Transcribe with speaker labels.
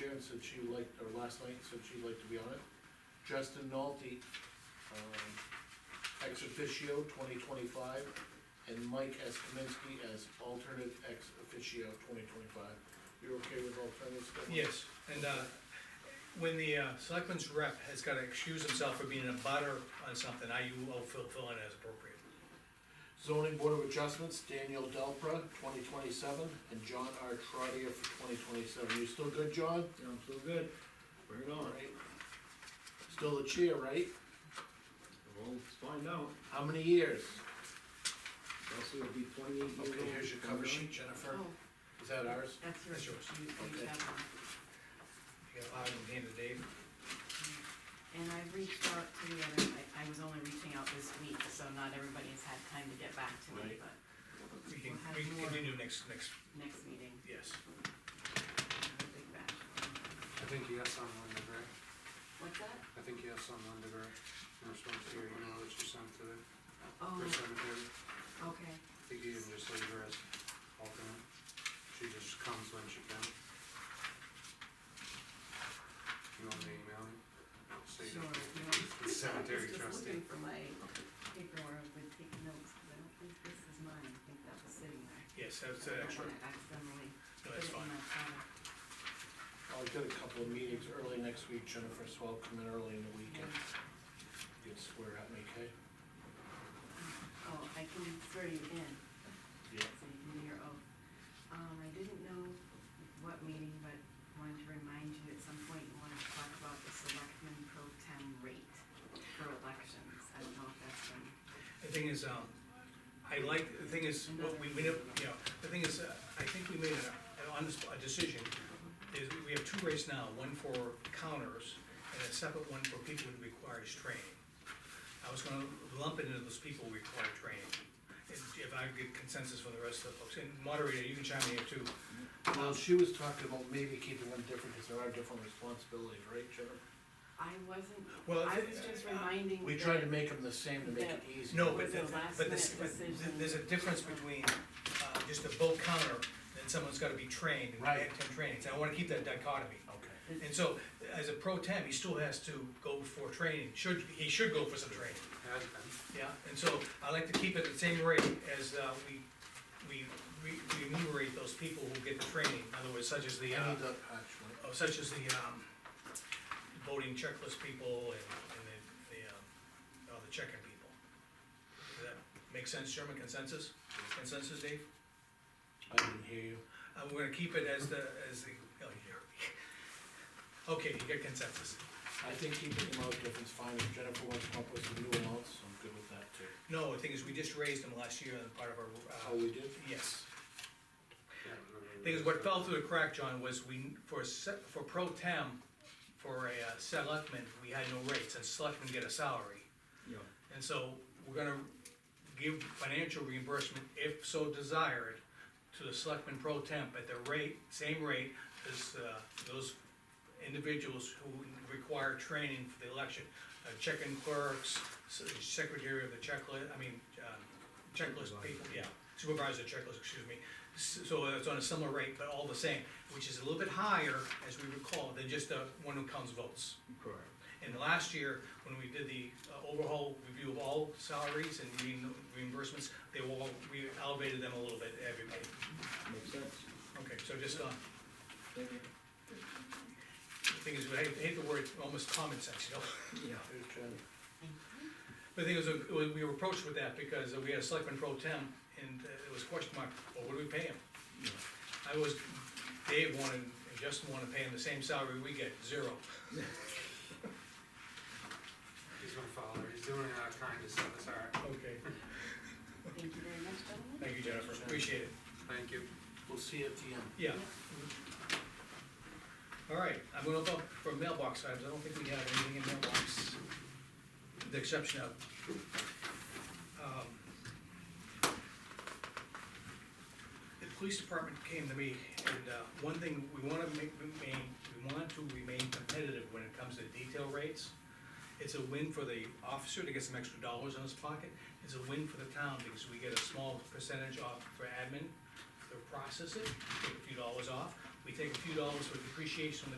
Speaker 1: Karen said she liked, or last night said she'd like to be on it. Justin Nolte, um, ex officio twenty twenty-five, and Mike S. Kaminsky as alternate ex officio twenty twenty-five. You're okay with alternates? Kevin?
Speaker 2: Yes, and, uh, when the, uh, selectman's rep has gotta excuse himself for being a butter on something, I, will fill in as appropriate.
Speaker 1: Zoning Board of Adjustments, Daniel Delpra, twenty twenty-seven, and John R. Trotter for twenty twenty-seven. You still good, John?
Speaker 3: I'm so good, bring it on,
Speaker 1: Alright. Still the chair, right?
Speaker 3: we'll find out,
Speaker 1: How many years?
Speaker 3: Leslie will be twenty-eight years old.
Speaker 1: Okay, here's your cover sheet, Jennifer.
Speaker 4: Oh,
Speaker 1: Is that ours?
Speaker 4: that's yours.
Speaker 2: That's yours.
Speaker 4: You- you
Speaker 1: Okay.
Speaker 4: have one.
Speaker 2: You got five in hand to Dave.
Speaker 4: And I reached out to the other, I, I was only reaching out this week, so not everybody has had time to get back to
Speaker 1: Right.
Speaker 4: me, but
Speaker 2: We can, we can continue next, next,
Speaker 4: next meeting,
Speaker 2: yes.
Speaker 4: I have a big batch.
Speaker 5: I think yes on Lundaberry,
Speaker 4: What's that?
Speaker 5: I think yes on Lundaberry, in response to your email that you sent to the first
Speaker 4: Oh,
Speaker 5: cemetery.
Speaker 4: okay,
Speaker 5: I think you can just leave her as alternate, she just comes when she can. You want me to email it? I'll
Speaker 4: sure.
Speaker 5: save
Speaker 4: you
Speaker 5: it.
Speaker 4: know, I
Speaker 5: It's cemetery
Speaker 4: was just
Speaker 5: trustee.
Speaker 4: looking for my paper where I would take notes, because I don't think this is mine, I think that was sitting there.
Speaker 2: Yes, that's
Speaker 4: So
Speaker 2: an
Speaker 4: I don't
Speaker 2: extra,
Speaker 4: wanna Accidentally
Speaker 2: no,
Speaker 4: put
Speaker 2: that's
Speaker 4: it
Speaker 2: fine.
Speaker 4: in my file.
Speaker 1: I'll get a couple of meetings early next week, Jennifer, so I'll come in early in the weekend. You can swear at me, okay?
Speaker 4: Oh, I can throw you in.
Speaker 1: Yeah.
Speaker 4: So you can do your oath. Um, I didn't know what meeting, but wanted to remind you at some point you wanted to talk about the selectmen pro tem rate for elections. I don't know if that's been,
Speaker 2: The thing is, um, I like, the thing is, what we, we, don't- you know, the thing is, uh, I think we made a, on this, a decision. Is we have two rates now, one for counters and a separate one for people who require training. I was gonna lump it into those people who require training. If if I get consensus from the rest of the folks, and moderator, you can chime in here too.
Speaker 1: Well, she was talking about maybe keeping them different, because there are different responsibilities, right, Jennifer?
Speaker 4: I wasn't,
Speaker 2: Well,
Speaker 4: I was just reminding.
Speaker 1: uh, We
Speaker 4: that-
Speaker 1: tried to make them the same to make it easy.
Speaker 2: No, but,
Speaker 4: The
Speaker 2: the-
Speaker 4: last
Speaker 2: but this, but th-
Speaker 4: minute decision.
Speaker 2: there's a difference between, uh, just a bulk counter, and someone's gotta be trained, and
Speaker 1: Right.
Speaker 2: have ten trainings, I wanna keep that dichotomy.
Speaker 1: Okay,
Speaker 2: And so, as a pro temp, he still has to go for training, should, he should go for some training,
Speaker 5: Has been.
Speaker 2: yeah, and so, I like to keep it the same rate as, uh, we, we, we we enumerate those people who get the training, in other words, such as the,
Speaker 1: I
Speaker 2: uh,
Speaker 1: need that actually.
Speaker 2: oh, such as the, um, voting checklist people and, and the, the, um, oh, the checking people. Does that make sense, Sherman, consensus, consensus, Dave?
Speaker 1: I didn't hear you.
Speaker 2: Uh, we're gonna keep it as the, as the, oh, you heard me. Okay, you get consensus.
Speaker 1: I think keeping them out different is fine, if Jennifer wants to come up with some new amounts, I'm good with that too.
Speaker 2: No, the thing is, we just raised them last year as part of
Speaker 1: How
Speaker 2: our, uh,
Speaker 1: Oh, we did?
Speaker 2: yes.
Speaker 5: Yeah, I remember
Speaker 2: Thing is,
Speaker 5: this.
Speaker 2: what fell through the crack, John, was we, for, se- for pro tem, for a uh, selectman, we had no rates, and selectmen get a salary.
Speaker 3: Yeah,
Speaker 2: And so, we're gonna give financial reimbursement, if so desired, to the selectmen pro temp at the rate, same rate as, uh, those individuals who require training for the election. Uh, check-in clerks, s- secretary of the checklist, I mean, uh, checklist people, yeah, supervisor checklist, excuse me. S- So it's on a similar rate, but all the same, which is a little bit higher, as we recall, than just the one who counts votes.
Speaker 3: correct.
Speaker 2: And last year, when we did the uh, overhaul review of all salaries and re- reimbursements, they were all, we elevated them a little bit, everybody.
Speaker 3: Makes sense.
Speaker 2: Okay, so just, uh,
Speaker 3: Thank
Speaker 2: the thing is, I hate the word, almost common sense, you know?
Speaker 3: you. Yeah.
Speaker 1: Here's Jen.
Speaker 2: The thing is, uh, we- we were approached with that because uh, we had a selectman pro tem, and uh, it was question mark, well, what do we pay him?
Speaker 3: Yeah.
Speaker 2: I was, Dave wanted, and Justin wanted to pay him the same salary we get, zero.
Speaker 5: He's my father, he's doing it out of kindness, so it's all right,
Speaker 2: Okay.
Speaker 4: Thank you very much, gentlemen.
Speaker 2: Thank you, Jennifer, appreciate it.
Speaker 5: thank you.
Speaker 1: We'll see you at the end.
Speaker 2: Yeah. All right, I'm gonna go for mailbox items, I don't think we have anything in mailbox, with the exception of. um, The police department came to me, and, uh, one thing, we wanna make, remain, we want to remain competitive when it comes to detail rates. It's a win for the officer to get some extra dollars in his pocket, it's a win for the town, because we get a small percentage off for admin, to process it, take a few dollars off. We take a few dollars for depreciation on the